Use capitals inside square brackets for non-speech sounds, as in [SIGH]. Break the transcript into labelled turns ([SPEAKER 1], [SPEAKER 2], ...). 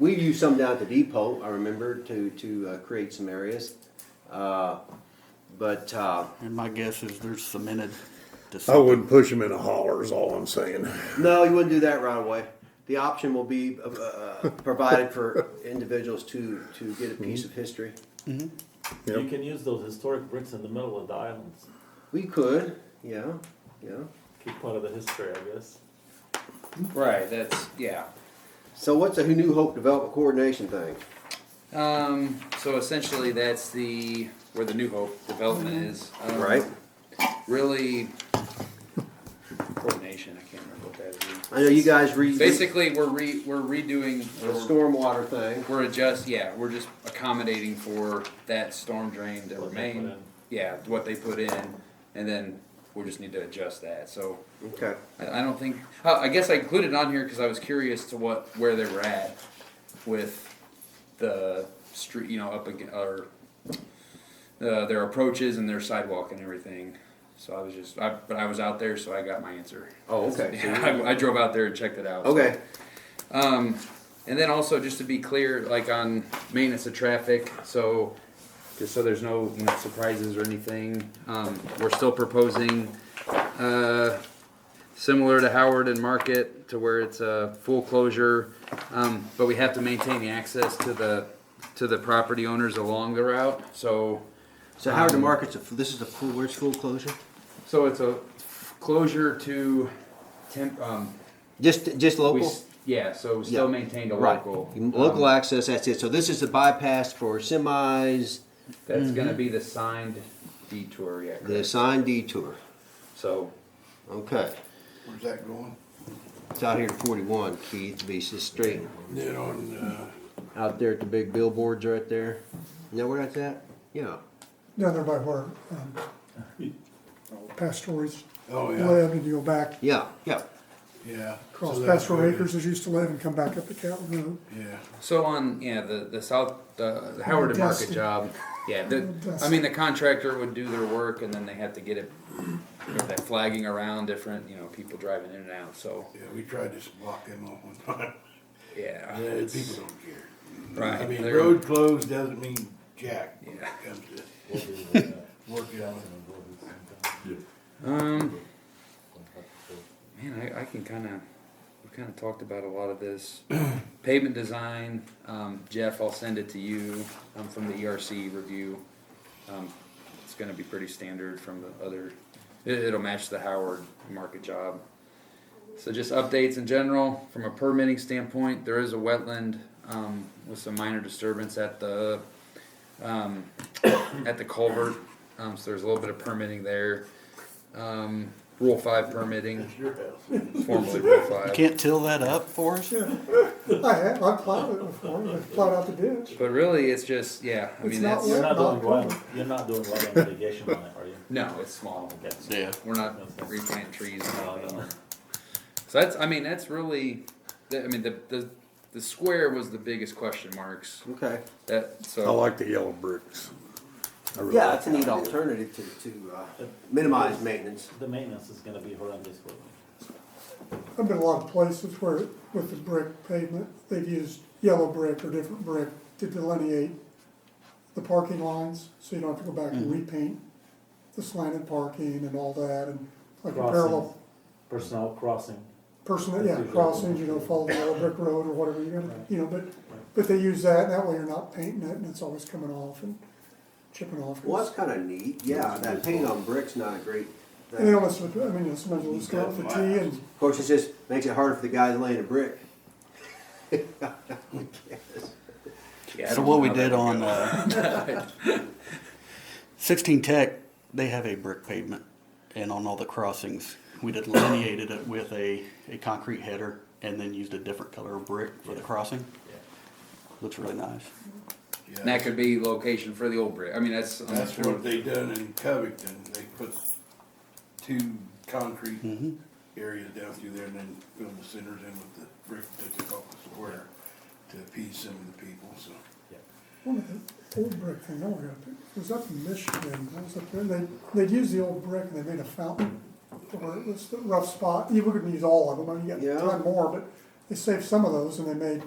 [SPEAKER 1] We've used some down at the depot, I remember, to, to uh, create some areas. Uh, But, uh,
[SPEAKER 2] And my guess is they're cemented to
[SPEAKER 3] Oh,
[SPEAKER 4] I
[SPEAKER 2] something.
[SPEAKER 4] wouldn't push them in a holler is all I'm saying.
[SPEAKER 1] no, you wouldn't do that right away. The option will be uh, uh, provided for individuals to, to get a piece of history.
[SPEAKER 4] Yep.
[SPEAKER 5] You can use those historic bricks in the middle of the islands.
[SPEAKER 1] We could, yeah, yeah.
[SPEAKER 5] Keep part of the history, I guess.
[SPEAKER 3] Right, that's, yeah.
[SPEAKER 1] So what's the New Hope Development Coordination thing?
[SPEAKER 3] Um, so essentially, that's the, where the New Hope development is. Um,
[SPEAKER 1] Right?
[SPEAKER 3] Really, coordination, I can't remember what that
[SPEAKER 1] I know you guys re.
[SPEAKER 3] is. Basically, we're re, we're redoing,
[SPEAKER 1] The stormwater thing.
[SPEAKER 3] we're adjust, yeah, we're just accommodating for that storm drain to
[SPEAKER 5] What they put
[SPEAKER 3] remain.
[SPEAKER 5] in.
[SPEAKER 3] Yeah, what they put in, and then we just need to adjust that, so.
[SPEAKER 1] Okay.
[SPEAKER 3] I, I don't think. Uh, I guess I included it on here because I was curious to what where they were at with the street, you know, up again or uh, their approaches and their sidewalk and everything. So I was just, I, but I was out there, so I got my answer.
[SPEAKER 1] Oh, okay.
[SPEAKER 3] [LAUGHS]
[SPEAKER 1] So
[SPEAKER 3] Yeah, I, I drove out there and checked it out.
[SPEAKER 1] Okay.
[SPEAKER 3] Um, and then also just to be clear, like on maintenance of traffic, so just so there's no you know, surprises or anything, um, we're still proposing uh, similar to Howard and Market to where it's a full closure, um, but we have to maintain the access to the to the property owners along the route. So
[SPEAKER 1] So Howard the Market's, a- this is the full, where's full closure?
[SPEAKER 3] so it's a closure to temp. Um,
[SPEAKER 1] Just, just
[SPEAKER 3] we,
[SPEAKER 1] local?
[SPEAKER 3] s- yeah, so still maintained a
[SPEAKER 1] Right.
[SPEAKER 3] local um,
[SPEAKER 1] Local access, that's it. So this is the bypass for semis,
[SPEAKER 3] That's gonna be the signed detour, yeah.
[SPEAKER 1] Mhm. the
[SPEAKER 3] correct.
[SPEAKER 1] assigned detour.
[SPEAKER 3] So,
[SPEAKER 1] Okay.
[SPEAKER 6] Where's that going?
[SPEAKER 1] It's out here at forty-one, Keith, to be s- straight.
[SPEAKER 4] You know, and, uh,
[SPEAKER 1] Out there at the big billboards right there. You know where that's at? Yeah.
[SPEAKER 7] down there by where, um, Pastori's
[SPEAKER 6] Oh, yeah,
[SPEAKER 7] lived, and you go back,
[SPEAKER 1] Yeah, yeah.
[SPEAKER 6] yeah.
[SPEAKER 7] across
[SPEAKER 6] So that-
[SPEAKER 7] Pastor Acres as used to live, and come back up the Calvin Road.
[SPEAKER 6] Yeah,
[SPEAKER 3] so on, yeah, the, the south, uh, the Howard and Market
[SPEAKER 7] Dusty.
[SPEAKER 3] job, yeah, the, I mean, the contractor would do their work and then they have to get it, you know, that flagging around different, you know, people driving in and out, so,
[SPEAKER 6] yeah, we tried to block them off
[SPEAKER 4] [LAUGHS]
[SPEAKER 6] one time.
[SPEAKER 3] yeah.
[SPEAKER 6] Yeah,
[SPEAKER 3] it's-
[SPEAKER 6] people don't care.
[SPEAKER 3] Right.
[SPEAKER 6] I mean,
[SPEAKER 3] they're-
[SPEAKER 6] road closed doesn't mean jack when
[SPEAKER 3] Yeah.
[SPEAKER 6] it comes to
[SPEAKER 5] We'll do
[SPEAKER 4] [LAUGHS]
[SPEAKER 5] that.
[SPEAKER 6] working on it.
[SPEAKER 3] Um, man, I, I can kinda, we kinda talked about a lot of this. [CLEARS THROAT] Pavement design, um, Jeff, I'll send it to you, um, from the ERC review. Um, it's gonna be pretty standard from the other, it, it'll match the Howard market job. So just updates in general, from a permitting standpoint, there is a wetland, um, with some minor disturbance at the, um, [COUGHS] at the culvert. Um, so there's a little bit of permitting there. Um, rule five permitting,
[SPEAKER 6] It's your house.
[SPEAKER 3] formally rule
[SPEAKER 2] You
[SPEAKER 3] five.
[SPEAKER 2] Can't till that up for us?
[SPEAKER 7] Yeah, I have, I plowed it before, I plowed out the ditch.
[SPEAKER 3] But really, it's just, yeah, I
[SPEAKER 7] It's
[SPEAKER 3] mean,
[SPEAKER 7] not
[SPEAKER 3] that's,
[SPEAKER 5] You're not doing
[SPEAKER 7] Not
[SPEAKER 5] well, you're not doing well on mitigation on it, are you?
[SPEAKER 3] no, it's small.
[SPEAKER 5] Okay.
[SPEAKER 2] Yeah.
[SPEAKER 3] We're not replanting trees and all
[SPEAKER 5] No,
[SPEAKER 3] that.
[SPEAKER 5] no.
[SPEAKER 3] So that's, I mean, that's really, the- I mean, the, the, the square was the biggest question marks.
[SPEAKER 1] Okay.
[SPEAKER 3] That,
[SPEAKER 4] I
[SPEAKER 2] Oh,
[SPEAKER 3] so,
[SPEAKER 4] like the yellow bricks. I really
[SPEAKER 1] Yeah,
[SPEAKER 4] like
[SPEAKER 1] it's a neat alternative to, to uh, minimize maintenance.
[SPEAKER 5] The maintenance is gonna be horrendous for me.
[SPEAKER 7] I've been a lot of places where, with the brick pavement, they've used yellow brick or different brick to delineate the parking lines, so you don't have to go back and
[SPEAKER 6] Mm-hmm.
[SPEAKER 7] repaint the slanted parking and all that, and like a
[SPEAKER 5] Crossing,
[SPEAKER 7] parallel
[SPEAKER 5] personnel crossing.
[SPEAKER 7] person, yeah,
[SPEAKER 5] Yeah.
[SPEAKER 7] crossings, you know, follow the yellow brick road or whatever you're gonna, you know, but, but they use that, and that way you're not painting it, and it's always coming off and chipping off.
[SPEAKER 1] Well, that's kind of neat. Yeah, that paint on brick's not a great
[SPEAKER 7] And then
[SPEAKER 1] thing.
[SPEAKER 7] almost, I mean, it's much as go out for tea and,
[SPEAKER 1] Of course, it just makes it harder for the guys laying a brick.
[SPEAKER 3] yeah. I
[SPEAKER 2] So
[SPEAKER 3] don't
[SPEAKER 2] what
[SPEAKER 3] know
[SPEAKER 2] we
[SPEAKER 3] how
[SPEAKER 2] did
[SPEAKER 3] [LAUGHS] that-
[SPEAKER 2] on uh, 16 Tech, they have a brick pavement, and on all the crossings, we delineated it with a, a concrete header, and then used a different color of brick for the crossing. Looks really nice.
[SPEAKER 6] Yeah.
[SPEAKER 3] And that could be location for the old brick, I mean, that's. um,
[SPEAKER 6] That's what they done in Covington, they put two concrete areas down through there and then filled the centers in with the brick that they call the square to appease some of the people, so.
[SPEAKER 7] one of the old brick thing, I went up, it was up in Michigan, I was up there, and they, they'd use the old brick and they made a fountain. to Where it was the rough spot, you wouldn't use all of them, I mean, you
[SPEAKER 1] Yeah.
[SPEAKER 7] got a ton more, but they saved some of those and they made